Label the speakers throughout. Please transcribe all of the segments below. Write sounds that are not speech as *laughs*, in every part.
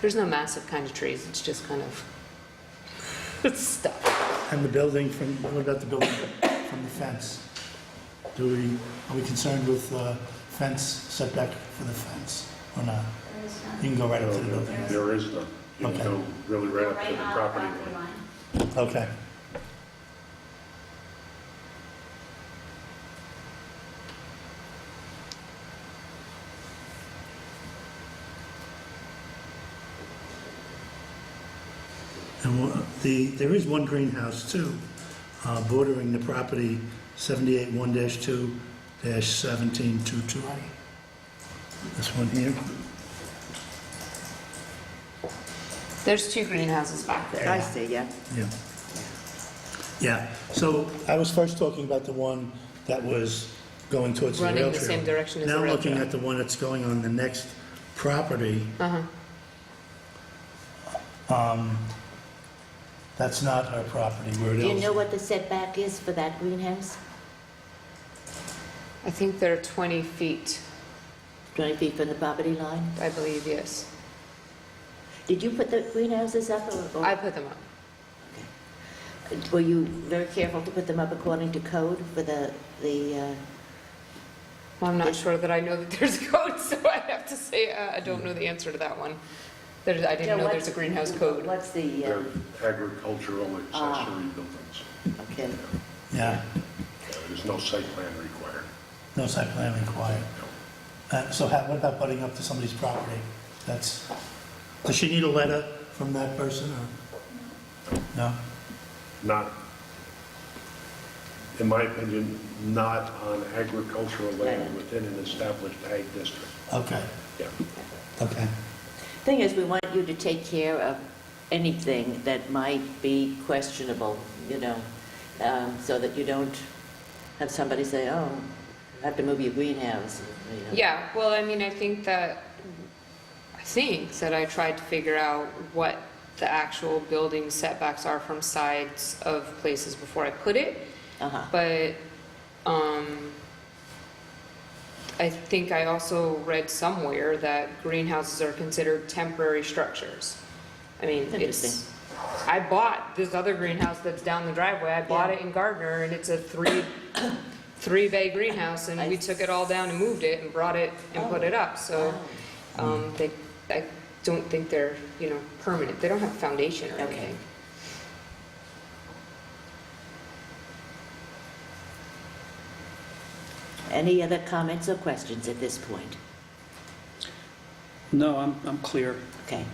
Speaker 1: There's no massive kind of trees, it's just kind of *laughs* stuff.
Speaker 2: And the building from, what about the building from the fence? Do we, are we concerned with uh, fence setback for the fence or not? You can go right up
Speaker 3: Oh,
Speaker 2: to the building.
Speaker 3: There is none. You can
Speaker 2: Okay.
Speaker 3: go really right up to
Speaker 4: Right
Speaker 3: the
Speaker 4: on
Speaker 3: property line.
Speaker 2: Okay. And wha- the, there is one greenhouse too, uh, bordering the property 781-2-17220. This one here.
Speaker 1: There's two greenhouses back there.
Speaker 5: I see, yeah.
Speaker 2: Yeah. Yeah, so I was first talking about the one that was going towards the rail
Speaker 1: Running
Speaker 2: trail.
Speaker 1: the same direction as the rail
Speaker 2: Now looking
Speaker 1: trail.
Speaker 2: at the one that's going on the next property.
Speaker 1: Uh-huh.
Speaker 2: Um, That's not our property, where it
Speaker 5: Do you
Speaker 2: is.
Speaker 5: know what the setback is for that greenhouse?
Speaker 1: I think they're 20 feet,
Speaker 5: 20 feet from the property line?
Speaker 1: I believe, yes.
Speaker 5: Did you put the greenhouses up or-
Speaker 1: I
Speaker 5: or
Speaker 1: put them up.
Speaker 5: were you very careful to put them up according to code for the, the, uh,
Speaker 1: Well, I'm not sure that I know that there's a code, *laughs* so I have to say, uh, I don't know the answer to that one. There's, I didn't
Speaker 5: no,
Speaker 1: know there's
Speaker 5: what's-
Speaker 1: a greenhouse code.
Speaker 5: What's the, uh,
Speaker 3: They're agricultural
Speaker 5: Ah.
Speaker 3: accessory buildings.
Speaker 5: okay,
Speaker 2: Yeah,
Speaker 3: There's no site plan required.
Speaker 2: no site plan required. Uh, So how, what about butting up to somebody's property? That's, does she need a letter from that person or? No?
Speaker 3: Not, in my opinion, not on agricultural land within an established ag district.
Speaker 2: Okay,
Speaker 3: Yeah.
Speaker 2: okay.
Speaker 5: thing is, we want you to take care of anything that might be questionable, you know, um, so that you don't have somebody say, oh, I have to move your greenhouse, you know.
Speaker 1: Yeah, well, I mean, I think that, I think that I tried to figure out what the actual building setbacks are from sides of places before I put it.
Speaker 5: Uh-huh.
Speaker 1: But, um, I think I also read somewhere that greenhouses are considered temporary structures. I mean, it's,
Speaker 5: Interesting.
Speaker 1: I bought this other greenhouse that's down the driveway, I bought
Speaker 5: Yeah.
Speaker 1: it in Gardner, and it's a three, three bay greenhouse, and we
Speaker 5: I- Oh,
Speaker 1: took it all down and moved it and brought it and put it up, so, um, they, I don't think they're, you know, permanent, they don't have foundation or
Speaker 5: Okay.
Speaker 1: anything.
Speaker 5: Any other comments or questions at this point?
Speaker 6: No, I'm, I'm clear.
Speaker 5: Okay.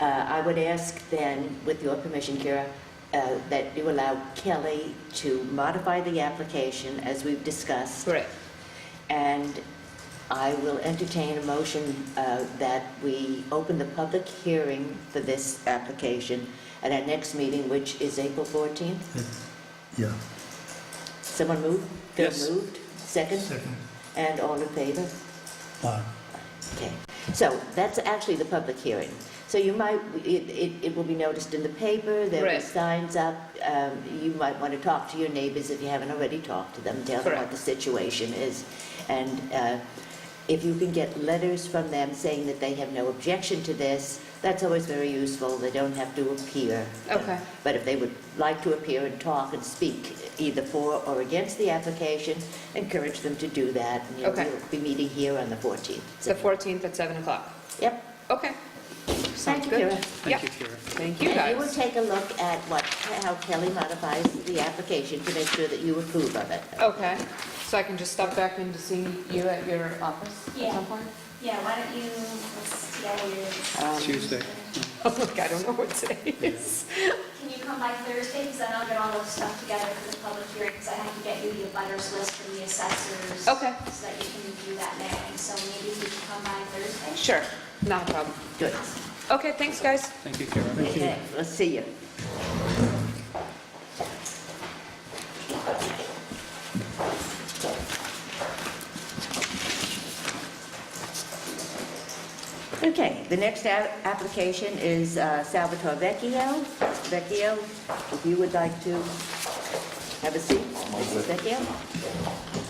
Speaker 5: Uh, I would ask then, with your permission, Kira, uh, that you allow Kelly to modify the application as we've discussed.
Speaker 1: Right.
Speaker 5: And I will entertain a motion uh, that we open the public hearing for this application at our next meeting, which is April 14th.
Speaker 2: Yeah,
Speaker 5: Someone move? Phil
Speaker 6: Yes.
Speaker 5: moved? Second?
Speaker 2: second.
Speaker 5: And all in favor?
Speaker 2: Uh,
Speaker 5: Okay, so that's actually the public hearing. So you might, it, it, it will be noticed in the paper, there'll be
Speaker 1: Right.
Speaker 5: signs up. Um, you might want to talk to your neighbors if you haven't already talked to them, tell them what
Speaker 1: Correct.
Speaker 5: the situation is. And, uh, if you can get letters from them saying that they have no objection to this, that's always very useful. They don't have to appear.
Speaker 1: Okay.
Speaker 5: But if they would like to appear and talk and speak either for or against the application, encourage them to do that. And you'll-
Speaker 1: Okay.
Speaker 5: We'll be meeting here on the 14th.
Speaker 1: It's the fourteenth at seven o'clock.
Speaker 5: Yep.
Speaker 1: Okay.
Speaker 5: Thank
Speaker 1: Sounds
Speaker 5: you,
Speaker 1: good.
Speaker 5: Kira.
Speaker 1: Yeah.
Speaker 6: Thank you, Kira.
Speaker 1: Thank you
Speaker 5: And you will
Speaker 1: guys.
Speaker 5: take a look at what, how Kelly modifies the application to make sure that you approve of it.
Speaker 1: Okay, so I can just stop back in to see you at your office at
Speaker 4: Yeah.
Speaker 1: some point? *laughs*
Speaker 4: Yeah, why don't you, let's, yeah, you're-
Speaker 5: Um,
Speaker 6: Tuesday.
Speaker 1: Look, I don't know what today is.
Speaker 4: can you come by Thursday, because then I'll get all the stuff together for the public hearing, because I have to get you the butters list from the assessors.
Speaker 1: Okay.
Speaker 4: So that you can review that mailing, so maybe you can come by Thursday.
Speaker 1: Sure, not a problem.
Speaker 5: Good.
Speaker 1: Okay, thanks, guys.
Speaker 6: Thank you, Kira.
Speaker 5: Okay, let's see you. Okay, the next a- application is uh, Salvatore Vecchio. Vecchio, if you would like to have a seat, Mrs. Vecchio.